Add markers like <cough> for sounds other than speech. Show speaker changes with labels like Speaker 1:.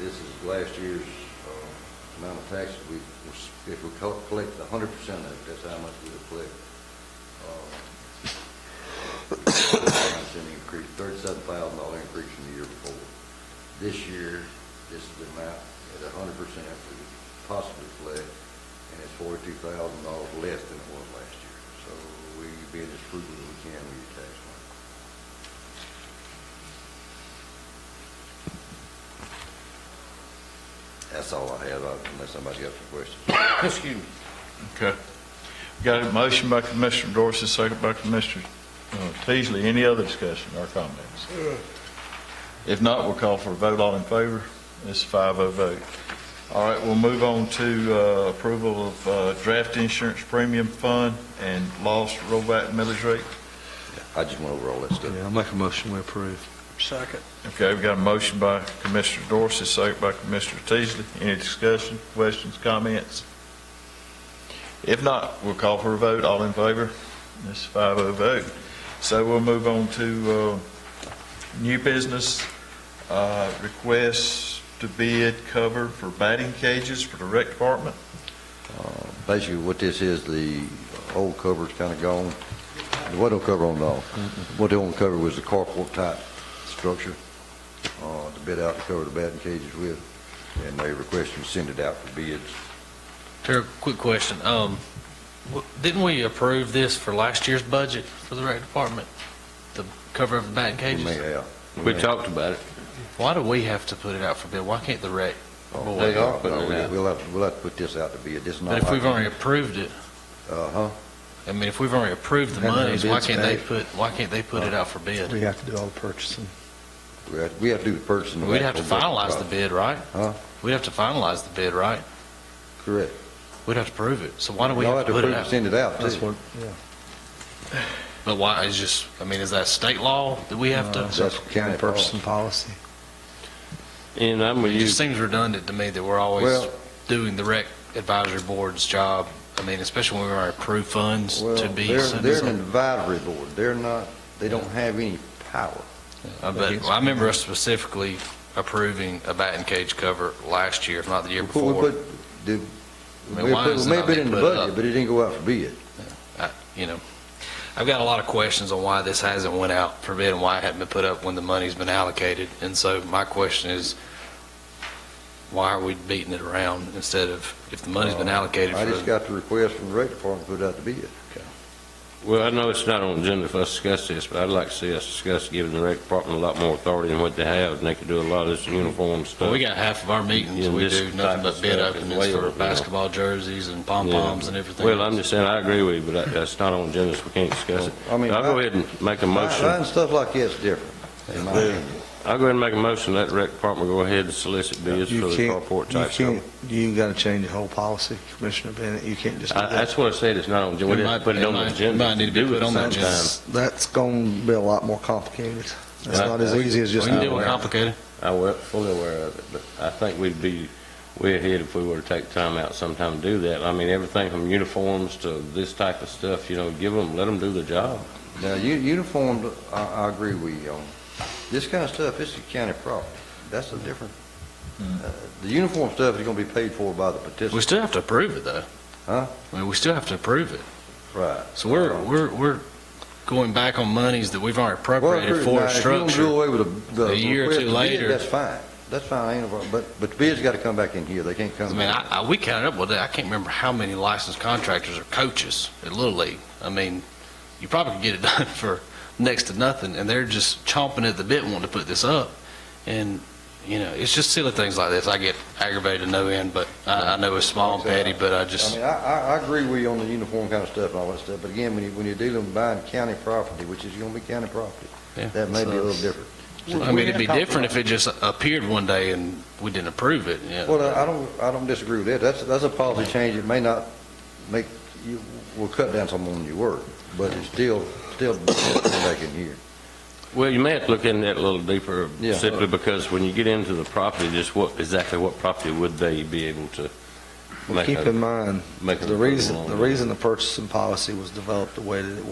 Speaker 1: is last year's uh, amount of taxes. We, if we co- collect a hundred percent of it, that's how much we'll collect. Uh, Percent <coughs> increase, thirty-seven thousand dollar increase from the year before. This year, this is the amount at a hundred percent we could possibly collect, and it's forty-two thousand dollars less than it was last year. So we being as frugal as we can with your tax money. That's all I have, uh, unless somebody else has questions.
Speaker 2: <coughs> Excuse me.
Speaker 3: Okay. Got a motion by Commissioner Dorsey, second by Commissioner uh, Teasley. Any other discussion or comments? If not, we'll call for a vote. All in favor? It's a 5-0 vote. All right, we'll move on to uh, approval of uh, draft insurance premium fund and lost rollback millage rate.
Speaker 1: I just went over all that stuff.
Speaker 2: Yeah, I'll make a motion, we approve. Second.
Speaker 3: Okay, we've got a motion by Commissioner Dorsey, second by Commissioner Teasley. Any discussion, questions, comments? If not, we'll call for a vote. All in favor? This is 5-0 vote. So we'll move on to uh, new business, uh, requests to bid cover for batting cages for the rec department.
Speaker 1: Basically, what this is, the old cover's kind of gone. There wasn't no cover on it all. What they only covered was the carport type structure, uh, to bid out to cover the batting cages with, and they requested to send it out for bids.
Speaker 4: Terry, quick question. Um, w- didn't we approve this for last year's budget for the rec department? The cover of the batting
Speaker 1: We may
Speaker 4: cages?
Speaker 1: have.
Speaker 5: We talked about it.
Speaker 4: Why do we have to put it out for bid? Why can't the rec?
Speaker 1: Oh,
Speaker 4: They
Speaker 5: are
Speaker 1: no,
Speaker 5: putting it
Speaker 1: we-
Speaker 5: out.
Speaker 1: We'll have, we'll have to put this out to bid. This is not like.
Speaker 4: But if we've already approved it,
Speaker 1: Uh-huh.
Speaker 4: I mean, if we've already approved the
Speaker 2: Haven't been
Speaker 4: monies, why
Speaker 2: bids
Speaker 4: can't they
Speaker 2: back.
Speaker 4: put, why can't they put it out for bid?
Speaker 2: We have to do all the purchasing.
Speaker 1: We have, we have to do the purchasing. of
Speaker 4: We'd have to
Speaker 1: actual building
Speaker 4: finalize the
Speaker 1: product.
Speaker 4: bid, right?
Speaker 1: Huh?
Speaker 4: We'd have to finalize the bid, right?
Speaker 1: Correct.
Speaker 4: We'd have to prove it. So why do we
Speaker 1: Y'all
Speaker 4: have to put
Speaker 1: approve
Speaker 4: it
Speaker 1: to
Speaker 4: out?
Speaker 1: Send it out,
Speaker 2: That's
Speaker 1: too.
Speaker 2: what, yeah.
Speaker 4: But why, is just, I mean, is that state law that we have
Speaker 2: Uh,
Speaker 4: to?
Speaker 1: That's county policy.
Speaker 2: Purchasing policy.
Speaker 5: And I'm with
Speaker 4: It
Speaker 5: you.
Speaker 4: just seems redundant to me that we're always
Speaker 1: Well-
Speaker 4: doing the rec advisory board's job. I mean, especially when we are approved funds
Speaker 1: Well,
Speaker 4: to be.
Speaker 1: they're,
Speaker 4: sent
Speaker 1: they're
Speaker 4: some-
Speaker 1: an advisory board. They're not, they don't have any power.
Speaker 4: I bet- well, Uh, I remember us specifically approving a batting cage cover last year, if not the year
Speaker 1: Well, we
Speaker 4: before.
Speaker 1: put the-
Speaker 4: I
Speaker 1: We
Speaker 4: mean, why
Speaker 1: put- it
Speaker 4: is it
Speaker 1: may
Speaker 4: not
Speaker 1: have been in the
Speaker 4: being put
Speaker 1: budget,
Speaker 4: up?
Speaker 1: but it didn't go out for bid.
Speaker 4: I- You know, I've got a lot of questions on why this hasn't went out for bid and why it hadn't been put up when the money's been allocated. And so my question is, why are we beating it around instead of, if the money's been allocated
Speaker 1: Uh, I just
Speaker 4: for,
Speaker 1: got the request from the rec department to put out the bid.
Speaker 5: Well, I know it's not on the agenda for us to discuss this, but I'd like to see us discuss giving the rec department a lot more authority than what they have, and they could do a lot of this uniform
Speaker 4: well,
Speaker 5: stuff.
Speaker 4: we got half of our meetings,
Speaker 5: Yeah,
Speaker 4: we
Speaker 5: this
Speaker 4: do nothing
Speaker 5: type
Speaker 4: but
Speaker 5: of
Speaker 4: bid
Speaker 5: stuff is
Speaker 4: openings
Speaker 5: way over,
Speaker 4: for
Speaker 5: you know.
Speaker 4: basketball jerseys and pom-poms and everything.
Speaker 5: Well, I'm just saying, I agree with you, but that- that's not on the agenda, so we can't discuss it.
Speaker 1: I mean,
Speaker 5: I'll go
Speaker 1: I-
Speaker 5: ahead and make a motion.
Speaker 1: Buying stuff like that's different, in my opinion.
Speaker 5: I'll go ahead and make a motion, let the rec department go ahead and solicit bids for
Speaker 2: You
Speaker 5: the
Speaker 2: can't,
Speaker 5: carport
Speaker 2: you
Speaker 5: type stuff.
Speaker 2: can't, you gotta change the whole policy, Commissioner Bennett, you can't just do
Speaker 5: I,
Speaker 2: that.
Speaker 5: that's what I said, it's not on, the agenda. we
Speaker 4: It
Speaker 5: didn't
Speaker 4: might-
Speaker 5: put it
Speaker 4: it
Speaker 5: on the
Speaker 4: might-
Speaker 5: agenda.
Speaker 4: might need to be
Speaker 5: Do it
Speaker 4: put on the
Speaker 5: sometime.
Speaker 4: agenda.
Speaker 2: That's gonna be a lot more complicated. That's
Speaker 5: Yeah.
Speaker 2: not as easy as
Speaker 4: We
Speaker 2: just.
Speaker 4: can
Speaker 5: do
Speaker 4: do
Speaker 5: it
Speaker 4: it
Speaker 2: doing-
Speaker 4: complicated.
Speaker 5: I was fully aware of it, but I think we'd be way ahead if we were to take time out sometime to do that. I mean, everything from uniforms to this type of stuff, you know, give them, let them do the job.
Speaker 1: Now, u- uniformed, I, I agree with you on. This kind of stuff, this is county property. That's a different, uh, the uniform stuff is gonna be paid for by the
Speaker 4: We
Speaker 1: participant.
Speaker 4: still have to approve it, though.
Speaker 1: Huh?
Speaker 4: I mean, we still have to approve it.
Speaker 1: Right.
Speaker 4: So we're,
Speaker 1: Right.
Speaker 4: we're, we're going back on monies that we've already
Speaker 1: Well,
Speaker 4: appropriated
Speaker 1: approved.
Speaker 4: for
Speaker 1: Now,
Speaker 4: a
Speaker 1: If you don't do
Speaker 4: structure.
Speaker 1: away with the, the.
Speaker 4: A year or
Speaker 1: request
Speaker 4: two
Speaker 1: to bid,
Speaker 4: later.
Speaker 1: That's fine. That's fine, ain't no problem. but, but the bid's gotta come back in here. They can't
Speaker 4: I
Speaker 1: come.
Speaker 4: mean, I, I, we counted up with it. I can't remember how many licensed contractors are coaches at Little League. I mean, you probably could get it <laughs> done for next to nothing, and they're just chomping at the bit wanting to put this up. And, you know, it's just silly things like this. I get aggravated to no end, but I, I know it's small and petty, but I
Speaker 1: I
Speaker 4: just,
Speaker 1: mean, I, I, I agree with you on the uniform kind of stuff and all that stuff, but again, when you, when you're dealing with buying county property, which is gonna be county property,
Speaker 4: Yeah.
Speaker 1: that may be a little different.
Speaker 4: I mean, it'd be different if it just appeared one day and we didn't approve it, yeah.
Speaker 1: Well, I- I don't, I don't disagree with that. That's, that's a policy change. It may not make, you, will cut down some on your work, but it's still, still back in here.
Speaker 5: Well, you may have to look into that a little deeper
Speaker 1: Yeah.
Speaker 5: simply because when you get into the property, just what, exactly what property would they be able to
Speaker 2: Well,
Speaker 5: make
Speaker 2: Keep
Speaker 5: a,
Speaker 2: in mind,
Speaker 5: make an
Speaker 2: the reason,
Speaker 5: approval
Speaker 2: the
Speaker 5: on?
Speaker 2: reason the purchasing policy was developed the way that it was.